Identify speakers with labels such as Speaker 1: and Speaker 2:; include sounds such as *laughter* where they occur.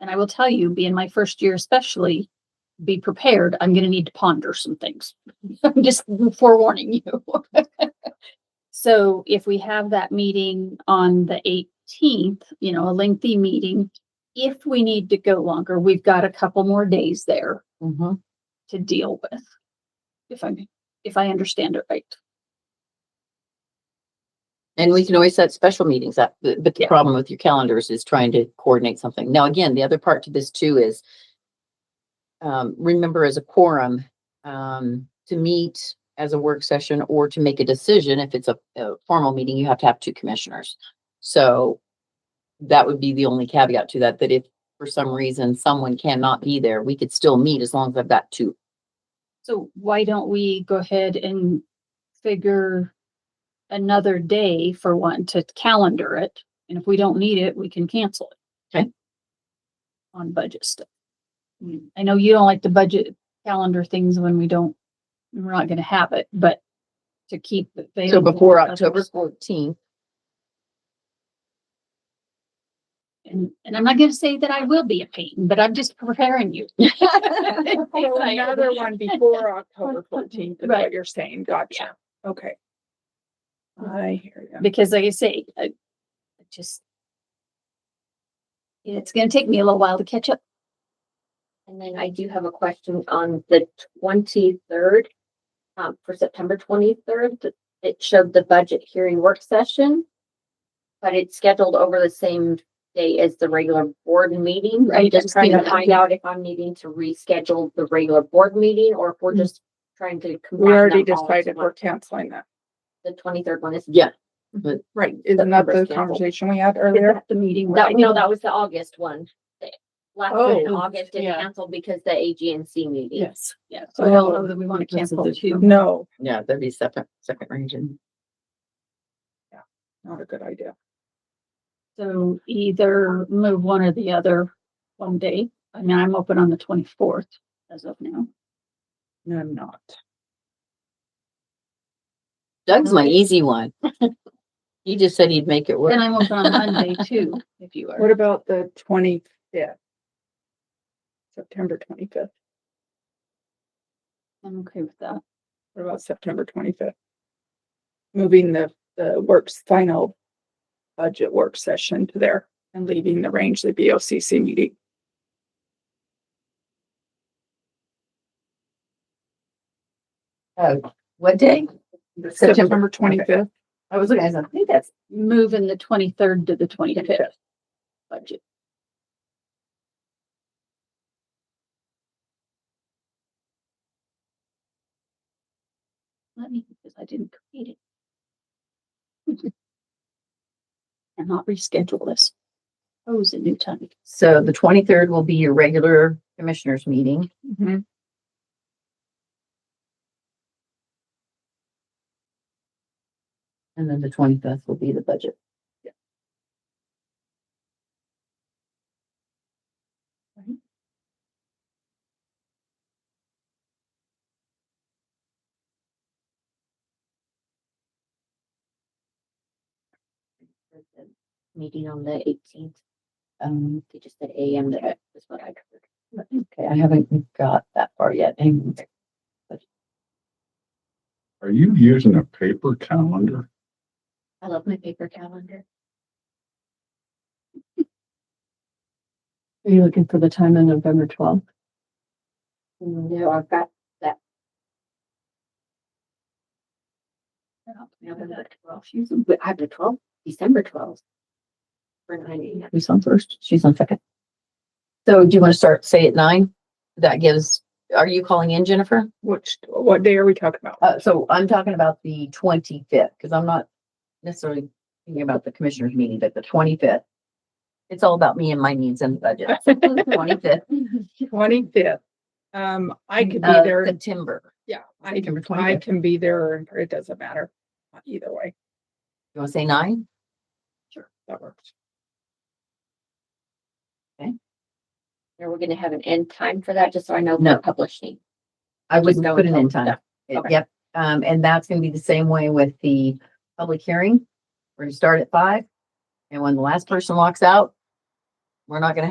Speaker 1: And I will tell you, being my first year especially, be prepared. I'm gonna need to ponder some things. *laughs* I'm just forewarning you. *laughs* So if we have that meeting on the eighteenth, you know, a lengthy meeting, if we need to go longer, we've got a couple more days there
Speaker 2: Mhm.
Speaker 1: to deal with. If I, if I understand it right.
Speaker 2: And we can always set special meetings up, but but the
Speaker 1: Yeah.
Speaker 2: problem with your calendars is trying to coordinate something. Now, again, the other part to this too is um, remember as a quorum, um, to meet as a work session or to make a decision, if it's a, a formal meeting, you have to have two commissioners. So that would be the only caveat to that, that if for some reason someone cannot be there, we could still meet as long as I've got two.
Speaker 1: So why don't we go ahead and figure another day for one to calendar it? And if we don't need it, we can cancel it.
Speaker 2: Okay.
Speaker 1: On budget stuff. Mm, I know you don't like the budget calendar things when we don't, we're not gonna have it, but to keep. it
Speaker 2: So
Speaker 1: available
Speaker 2: before
Speaker 1: to
Speaker 2: October
Speaker 1: others.
Speaker 2: fourteenth,
Speaker 1: And, and I'm not gonna say that I will be a pain, but I'm just preparing
Speaker 2: *laughs*
Speaker 1: you. *laughs*
Speaker 3: So Another one before *laughs* October fourteenth is
Speaker 1: Right.
Speaker 3: what you're saying. Gotcha. Okay. I hear you.
Speaker 1: because like I say, I I just. It's gonna take me a little while to catch up.
Speaker 4: And then I do have a question on the twenty-third, um, for September twenty-third. It showed the budget hearing work session. But it's scheduled over the same day as the regular board meeting.
Speaker 1: Right,
Speaker 4: I'm
Speaker 1: I'm
Speaker 4: just trying to
Speaker 1: seeing that.
Speaker 4: find out if I'm needing to reschedule the regular board meeting or if we're
Speaker 1: Mhm.
Speaker 4: just trying to.
Speaker 3: Mm-hmm. We already decided we're canceling that.
Speaker 4: The twenty-third one is.
Speaker 2: yeah,
Speaker 3: Right. Isn't that
Speaker 4: September's
Speaker 3: the
Speaker 4: canceled.
Speaker 3: conversation we had earlier?
Speaker 1: The meeting.
Speaker 4: That, no, that was the August one. The Last one in
Speaker 3: Oh,
Speaker 4: August is
Speaker 3: yeah.
Speaker 4: canceled because the AGNC meeting.
Speaker 3: Yes.
Speaker 1: Yeah, so I don't know
Speaker 3: Oh,
Speaker 1: that we wanna
Speaker 2: that's a
Speaker 1: cancel
Speaker 2: good
Speaker 1: too.
Speaker 3: *laughs* No,
Speaker 2: yeah, that'd be second, second region.
Speaker 3: not a good idea.
Speaker 1: So either move one or the other one day. I mean, I'm open on the twenty-fourth as of now.
Speaker 3: No, I'm not.
Speaker 2: Doug's my easy one. He just said he'd make it
Speaker 1: And
Speaker 2: work.
Speaker 1: I'm open on Monday too, if you
Speaker 3: What
Speaker 1: are.
Speaker 3: about the twenty-fifth? September twenty-fifth.
Speaker 1: I'm okay with that.
Speaker 3: What about September twenty-fifth? Moving the, the works, final budget work session to there and leaving the range, the BOCC meeting.
Speaker 2: What day?
Speaker 3: September twenty-fifth.
Speaker 2: I was looking, I think that's.
Speaker 1: Moving the twenty-third to the twenty-fifth. Budget. Let me, because I didn't create it. *laughs* And not reschedule this. Oh, it's a new time.
Speaker 2: So the twenty-third will be your regular commissioners meeting.
Speaker 3: Mhm.
Speaker 2: And then the twenty-fifth will be the budget.
Speaker 4: Meeting on the eighteenth.
Speaker 2: Um,
Speaker 4: They just said AM, that is what I heard.
Speaker 2: okay, I haven't got that far yet. Hang on.
Speaker 5: Are you using a paper calendar?
Speaker 4: I love my paper calendar.
Speaker 6: Are you looking for the time on November twelfth?
Speaker 4: No, I've got November twelfth. I have the twelfth, December twelfth. For nine AM.
Speaker 2: Who's on first? She's on second. So do you want to start, say at nine? That gives, are you calling in, Jennifer?
Speaker 3: Which, what day are we talking about?
Speaker 2: Uh, so I'm talking about the twenty-fifth, because I'm not necessarily thinking about the commissioners meeting, but the twenty-fifth. It's all about me and my needs and the budget. *laughs* Twenty-fifth
Speaker 3: Twenty-fifth. Um, I could be
Speaker 2: of
Speaker 3: there.
Speaker 2: September.
Speaker 3: Yeah, I,
Speaker 2: Uh, September
Speaker 3: I
Speaker 2: twenty-fifth.
Speaker 3: can be there. or It doesn't matter. uh, Either way,
Speaker 2: You want to say nine?
Speaker 3: that works.
Speaker 4: Now we're gonna have an end time for that, just so I know
Speaker 2: No.
Speaker 4: for publishing.
Speaker 2: I would
Speaker 4: Just go
Speaker 2: put it in
Speaker 4: until-
Speaker 2: time. It-
Speaker 4: okay.
Speaker 2: Yep. Um, and that's gonna be the same way with the public hearing. We're gonna start at five. And when the last person walks out, we're not gonna